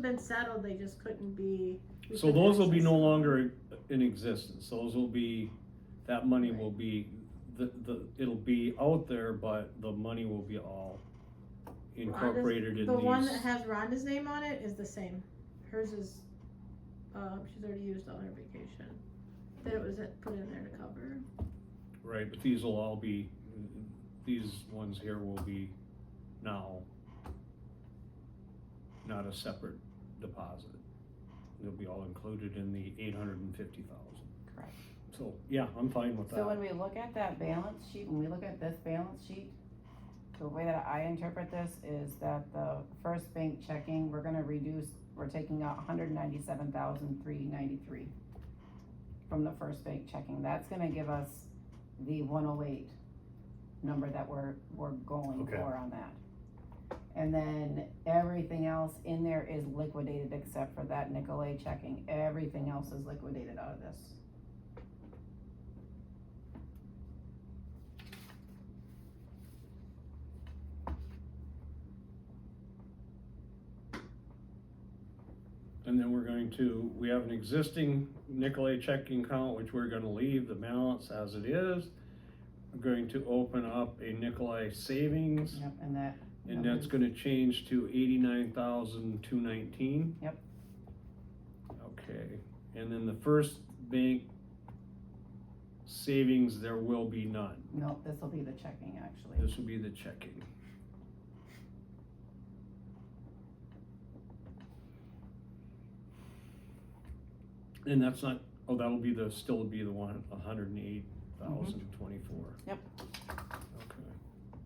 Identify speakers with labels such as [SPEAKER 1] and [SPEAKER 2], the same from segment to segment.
[SPEAKER 1] been settled, they just couldn't be. we
[SPEAKER 2] So
[SPEAKER 1] couldn't
[SPEAKER 2] those will be
[SPEAKER 1] access
[SPEAKER 2] no
[SPEAKER 1] them.
[SPEAKER 2] longer in existence, those will be, that money
[SPEAKER 1] Right.
[SPEAKER 2] will be, the, the, it'll be out there, but the money will be all incorporated in
[SPEAKER 1] The one that
[SPEAKER 2] these.
[SPEAKER 1] has Rhonda's name on it is the same. Hers is, uh, she's already used all her vacation. That it was uh, put in there to cover.
[SPEAKER 2] Right, but these will all be, these ones here will be now not a separate deposit. They'll be all included in the eight hundred and fifty thousand.
[SPEAKER 3] Correct.
[SPEAKER 2] So, yeah, I'm fine with
[SPEAKER 3] So when
[SPEAKER 2] that.
[SPEAKER 3] we look at that balance sheet, when we look at this balance sheet, the way that I interpret this is that the first bank checking, we're gonna reduce, we're taking out hundred ninety-seven thousand three ninety-three from the first bank checking, that's gonna give us the one oh eight number that we're, we're going
[SPEAKER 2] Okay.
[SPEAKER 3] for on that. And then everything else in there is liquidated except for that Nicolay checking, everything else is liquidated out of this.
[SPEAKER 2] And then we're going to, we have an existing Nicolay checking account, which we're gonna leave the balance as it is. We're going to open up a Nicolay savings,
[SPEAKER 3] Yep, and that.
[SPEAKER 2] and that's gonna change to eighty-nine thousand two nineteen.
[SPEAKER 3] Yep.
[SPEAKER 2] Okay, and then the first bank savings, there will be none.
[SPEAKER 3] No, this will be the checking actually.
[SPEAKER 2] This will be the checking. And that's not, oh, that'll be the, still be the one, a hundred and eight thousand twenty-four.
[SPEAKER 3] Yep.
[SPEAKER 2] Okay.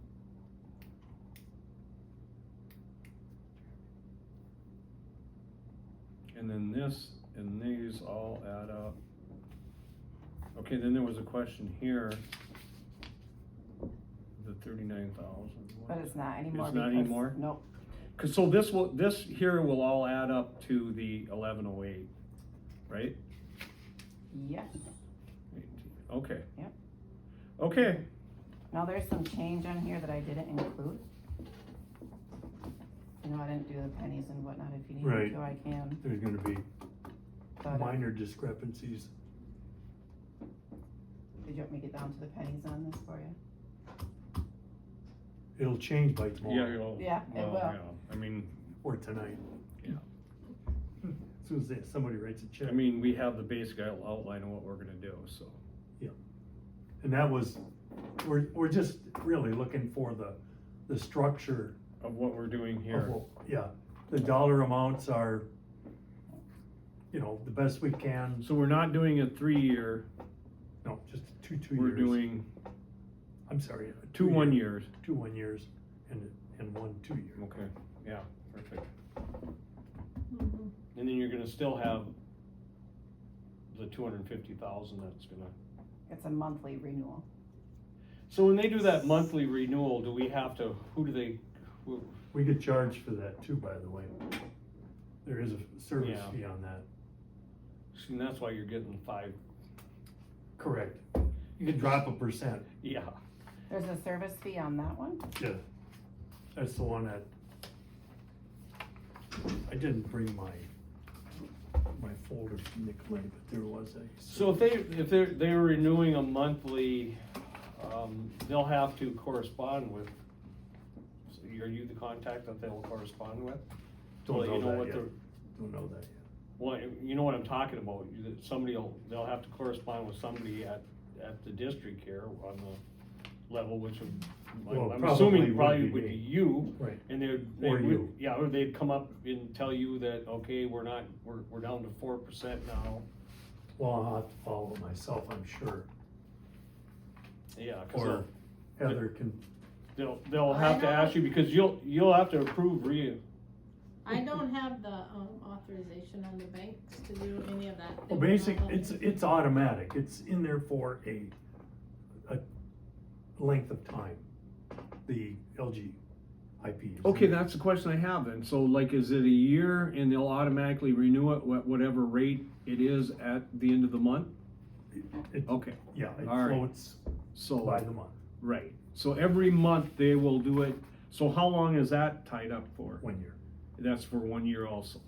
[SPEAKER 2] And then this and these all add up. Okay, then there was a question here. The thirty-nine thousand.
[SPEAKER 3] But it's not anymore.
[SPEAKER 2] It's not
[SPEAKER 3] because-
[SPEAKER 2] anymore?
[SPEAKER 3] Nope,
[SPEAKER 2] Cause so this will, this here will all add up to the eleven oh eight, right?
[SPEAKER 3] yes.
[SPEAKER 2] Okay.
[SPEAKER 3] Yep.
[SPEAKER 2] Okay,
[SPEAKER 3] Now there's some change on here that I didn't include. You know, I didn't do the pennies and whatnot. If you need me
[SPEAKER 4] Right.
[SPEAKER 3] to, I can.
[SPEAKER 4] There's gonna be
[SPEAKER 3] But uh,
[SPEAKER 4] minor discrepancies.
[SPEAKER 3] did you want me to get down to the pennies on this for you?
[SPEAKER 4] It'll change by
[SPEAKER 2] yeah,
[SPEAKER 4] tomorrow
[SPEAKER 2] you'll-
[SPEAKER 3] Yeah, it
[SPEAKER 2] well,
[SPEAKER 3] will.
[SPEAKER 2] yeah. I mean,
[SPEAKER 4] or tonight. Hmm.
[SPEAKER 2] Yeah.
[SPEAKER 4] As Soon as they- somebody writes a
[SPEAKER 2] I
[SPEAKER 4] check.
[SPEAKER 2] mean, we have the basic out- outline of what we're gonna do, so.
[SPEAKER 4] And that was, we're, we're just really looking for the, the structure
[SPEAKER 2] Of what we're doing
[SPEAKER 4] of
[SPEAKER 2] here.
[SPEAKER 4] what, yeah. The dollar amounts are, you know, the best we can,
[SPEAKER 2] So we're not doing a three-year,
[SPEAKER 4] no, just two, two years.
[SPEAKER 2] we're doing
[SPEAKER 4] I'm sorry. a
[SPEAKER 2] two one
[SPEAKER 4] year-
[SPEAKER 2] years.
[SPEAKER 4] Two one years and, and one two year.
[SPEAKER 2] Okay, yeah, perfect.
[SPEAKER 1] Mhm.
[SPEAKER 2] And then you're gonna still have the two hundred and fifty thousand that's gonna,
[SPEAKER 3] It's a monthly renewal.
[SPEAKER 2] so when they do that monthly renewal, do we have to, who do they, who,
[SPEAKER 4] We get charged for that too, by the way. There is a service
[SPEAKER 2] Yeah.
[SPEAKER 4] fee on that.
[SPEAKER 2] see, and that's why you're getting five,
[SPEAKER 4] Correct. You can drop a percent.
[SPEAKER 2] yeah.
[SPEAKER 3] There's a service fee on that one.
[SPEAKER 4] Yeah, that's the one that. I didn't bring my, my folder from Nicolay, but there was a.
[SPEAKER 2] So if they, if they're, they're renewing a monthly, um, they'll have to correspond with, so are you the contact that they'll correspond with? To
[SPEAKER 4] Don't
[SPEAKER 2] let you
[SPEAKER 4] know that
[SPEAKER 2] what
[SPEAKER 4] yet.
[SPEAKER 2] they're-
[SPEAKER 4] Don't know that yet.
[SPEAKER 2] Well, you know what I'm talking about, You- that somebody'll, they'll have to correspond with somebody at, at the district here on the level, which would-
[SPEAKER 4] Well,
[SPEAKER 2] I'm
[SPEAKER 4] probably
[SPEAKER 2] assuming
[SPEAKER 4] would
[SPEAKER 2] probably
[SPEAKER 4] be
[SPEAKER 2] would
[SPEAKER 4] me.
[SPEAKER 2] be you,
[SPEAKER 4] Right.
[SPEAKER 2] and they'd. they
[SPEAKER 4] Or
[SPEAKER 2] would-
[SPEAKER 4] you.
[SPEAKER 2] Yeah, or they'd come up and tell you that, okay, we're not, we're, we're down to four percent now,
[SPEAKER 4] Well, I'll have to follow it myself, I'm sure,
[SPEAKER 2] yeah, cause
[SPEAKER 4] or
[SPEAKER 2] they'll-
[SPEAKER 4] Heather can,
[SPEAKER 2] they'll, they'll
[SPEAKER 1] I
[SPEAKER 2] have to
[SPEAKER 1] know.
[SPEAKER 2] ask you, because you'll, you'll have to approve re,
[SPEAKER 1] I don't have the, um, authorization on the banks to do any of that. They
[SPEAKER 4] well,
[SPEAKER 1] were not
[SPEAKER 4] basic,
[SPEAKER 1] allowed
[SPEAKER 4] it's,
[SPEAKER 1] to.
[SPEAKER 4] it's automatic, it's in there for a, a length of time. The LG IP. is in
[SPEAKER 2] Okay,
[SPEAKER 4] there.
[SPEAKER 2] that's the question I have then. So like, is it a year and they'll automatically renew it, wha- whatever rate it is at the end of the month?
[SPEAKER 4] It-
[SPEAKER 2] Okay,
[SPEAKER 4] Yeah, it
[SPEAKER 2] All right.
[SPEAKER 4] floats
[SPEAKER 2] so.
[SPEAKER 4] by the month,
[SPEAKER 2] Right, so every month they will do it, so how long is that tied up for?
[SPEAKER 4] one year.
[SPEAKER 2] That's for one year also.